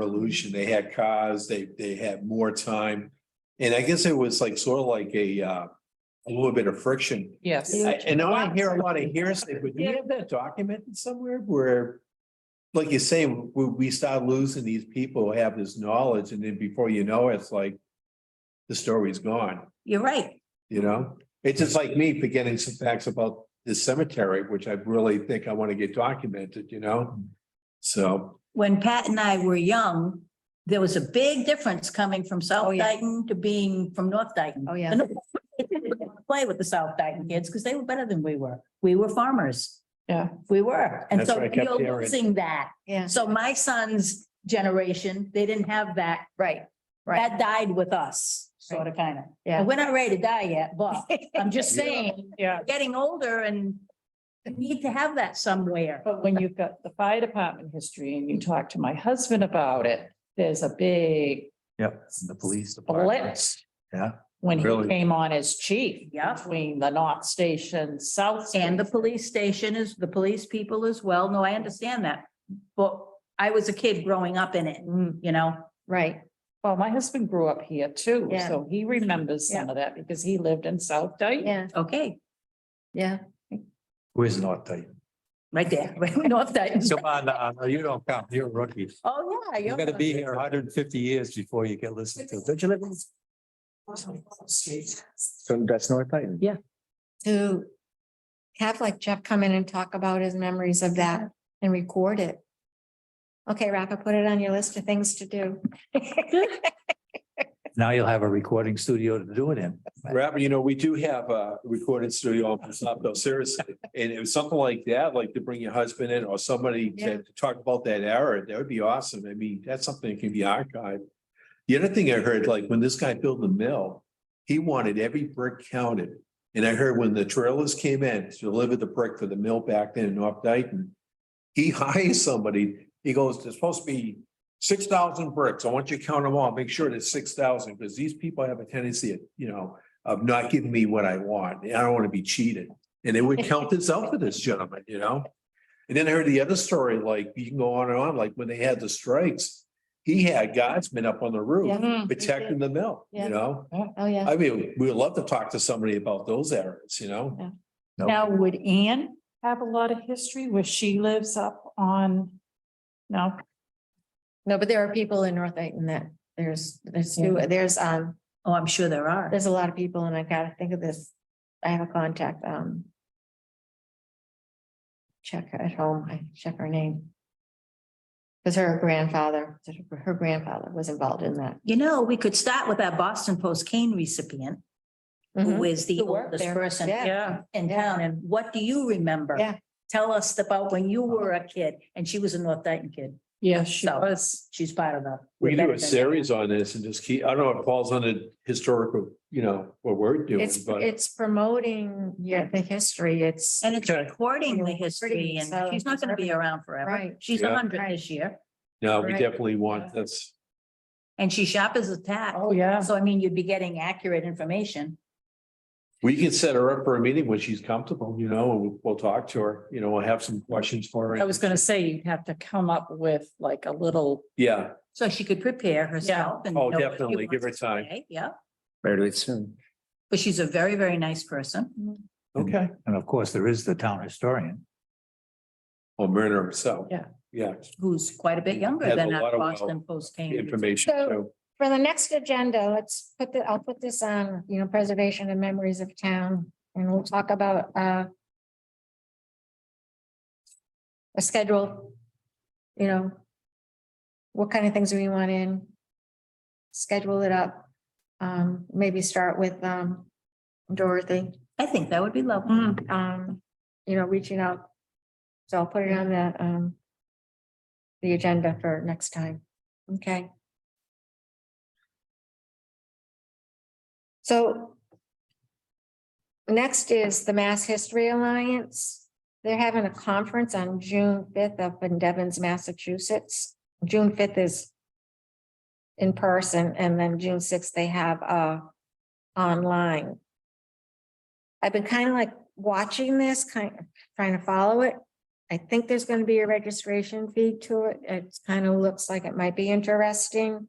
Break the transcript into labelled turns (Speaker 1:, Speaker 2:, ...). Speaker 1: revolution. They had cars, they, they had more time. And I guess it was like sort of like a, uh, a little bit of friction.
Speaker 2: Yes.
Speaker 1: I- And now I hear a lot of hearsay, but do you have that documented somewhere where, like you say, we, we start losing these people who have this knowledge and then before you know it, it's like the story's gone,
Speaker 3: You're right.
Speaker 1: you know? It's just like me forgetting some facts about this cemetery, which I really think I want to get documented, you know? So,
Speaker 3: When Pat and I were young, there was a big difference coming from
Speaker 2: Oh,
Speaker 3: South
Speaker 2: yeah.
Speaker 3: Dayton to being from North Dayton.
Speaker 2: Oh, yeah.
Speaker 3: And it didn't Play with the South Dayton kids because they were better than we were. We were farmers.
Speaker 2: Yeah.
Speaker 3: We were. And
Speaker 1: That's
Speaker 3: so
Speaker 1: what I kept
Speaker 3: you're
Speaker 1: hearing.
Speaker 3: losing that.
Speaker 2: Yeah.
Speaker 3: So my son's generation, they didn't have that.
Speaker 2: Right. Right.
Speaker 3: That died with us, sort of, kind of.
Speaker 2: Yeah.
Speaker 3: We're not ready to die yet, but I'm just
Speaker 1: Yeah.
Speaker 3: saying,
Speaker 2: Yeah.
Speaker 3: getting older and you need to have that somewhere.
Speaker 2: But when you've got the fire department history and you talk to my husband about it, there's a big
Speaker 4: Yep, and the police department.
Speaker 2: split.
Speaker 4: Yeah.
Speaker 2: When
Speaker 1: Really.
Speaker 2: he came on as chief.
Speaker 3: Yeah.
Speaker 2: Between the North Station, South.
Speaker 3: And the
Speaker 2: Station.
Speaker 3: police station is, the police people as well. No, I understand that. But I was a kid growing up in it,
Speaker 2: Mm,
Speaker 3: you know?
Speaker 2: Right. Well, my husband grew up here too,
Speaker 5: Yeah.
Speaker 2: so he remembers some of that because he lived in South Dayton.
Speaker 5: Yeah,
Speaker 3: Okay,
Speaker 5: yeah.
Speaker 4: Where's North Dayton?
Speaker 3: right there, right north Dayton.
Speaker 4: Come on, uh, no, you don't count. You're a rookie.
Speaker 3: Oh, yeah.
Speaker 4: You're
Speaker 3: you're-
Speaker 4: gonna be here hundred and fifty years before you get listened to. Don't you live in? So that's North Dayton?
Speaker 2: Yeah.
Speaker 5: To have like Jeff come in and talk about his memories of that and record it. Okay, Rafa, put it on your list of things to do.
Speaker 4: Now you'll have a recording studio to do it in.
Speaker 1: Rob, you know, we do have a recording studio on Pasato, seriously. And it was something like that, like to bring your husband in or somebody
Speaker 5: Yeah.
Speaker 1: to to talk about that era, that would be awesome. I mean, that's something that can be archived. The other thing I heard, like when this guy built the mill, he wanted every brick counted. And I heard when the trailers came in to deliver the brick for the mill back then in North Dayton, he hires somebody, he goes, there's supposed to be six thousand bricks. I want you to count them all, make sure it's six thousand, because these people have a tendency of, you know, of not giving me what I want. I don't want to be cheated. And it would count this out for this gentleman, you know? And then I heard the other story, like you can go on and on, like when they had the strikes, he had guardsmen up on the roof
Speaker 5: Yeah.
Speaker 1: protecting the mill,
Speaker 5: Yeah.
Speaker 1: you know?
Speaker 5: Oh, yeah.
Speaker 1: I mean, we would love to talk to somebody about those areas, you know?
Speaker 2: Now, would Anne have a lot of history where she lives up on? No,
Speaker 5: No, but there are people in North Dayton that there's, there's, two- there's, um,
Speaker 3: Oh, I'm sure there are.
Speaker 5: there's a lot of people and I gotta think of this. I have a contact, um. Check her at home. I check her name. Cause her grandfather, her grandfather was involved in that.
Speaker 3: You know, we could start with that Boston Post cane recipient, who is the
Speaker 5: Mm-hmm. Who worked
Speaker 3: oldest
Speaker 5: there.
Speaker 3: person
Speaker 5: Yeah.
Speaker 2: yeah,
Speaker 3: in
Speaker 5: Yeah.
Speaker 3: town. And what do you remember?
Speaker 5: Yeah. Uh-huh.
Speaker 3: Tell us about when you were a kid and she was a North Dayton kid.
Speaker 2: yeah, she
Speaker 3: So-
Speaker 2: was.
Speaker 3: She's part of the.
Speaker 1: We can do a series on this and just keep, I don't know, if it falls under historical, you know, what we're doing,
Speaker 5: It's,
Speaker 1: but.
Speaker 5: it's promoting, yeah, the history, it's,
Speaker 3: And it's
Speaker 1: Okay.
Speaker 3: recording the
Speaker 5: Recording,
Speaker 3: history and
Speaker 5: so
Speaker 3: she's not gonna be around forever.
Speaker 5: Right.
Speaker 3: She's
Speaker 1: Yeah.
Speaker 3: a hundred
Speaker 5: Right.
Speaker 3: this year
Speaker 1: No, we
Speaker 5: Right.
Speaker 1: definitely want this.
Speaker 3: and she shop is a tax.
Speaker 2: Oh, yeah.
Speaker 3: So I mean, you'd be getting accurate information.
Speaker 1: We can set her up for a meeting when she's comfortable, you know, and we'll- we'll talk to her, you know, we'll have some questions for
Speaker 2: I
Speaker 1: her.
Speaker 2: was gonna say, you'd have to come up with like a little,
Speaker 1: Yeah,
Speaker 3: So she could prepare herself and.
Speaker 1: Oh,
Speaker 3: know what she
Speaker 1: definitely. Give her
Speaker 3: wants to
Speaker 1: time.
Speaker 3: say. Yeah,
Speaker 4: Better do it soon.
Speaker 3: but she's a very, very nice person.
Speaker 1: okay.
Speaker 4: And of course, there is the town historian.
Speaker 1: Or Myrna herself.
Speaker 2: Yeah.
Speaker 1: Yeah,
Speaker 3: Who's quite a bit younger
Speaker 1: Has a
Speaker 3: than that
Speaker 1: lot of uh,
Speaker 3: Boston Post came.
Speaker 1: information. So
Speaker 5: for the next agenda, let's put the, I'll put this on, you know, preservation and memories of town, and we'll talk about, uh. A schedule, you know. What kind of things we want in. Schedule it up, um, maybe start with, um, Dorothy,
Speaker 3: I think that would be lovely.
Speaker 2: Mm,
Speaker 5: um, you know, reaching out. So I'll put it on the, um. The agenda for next time, okay? So. Next is the Mass History Alliance. They're having a conference on June fifth up in Devon's, Massachusetts. June fifth is. In person and then June sixth, they have uh online. I've been kind of like watching this, kind of trying to follow it. I think there's gonna be a registration fee to it. It kind of looks like it might be interesting.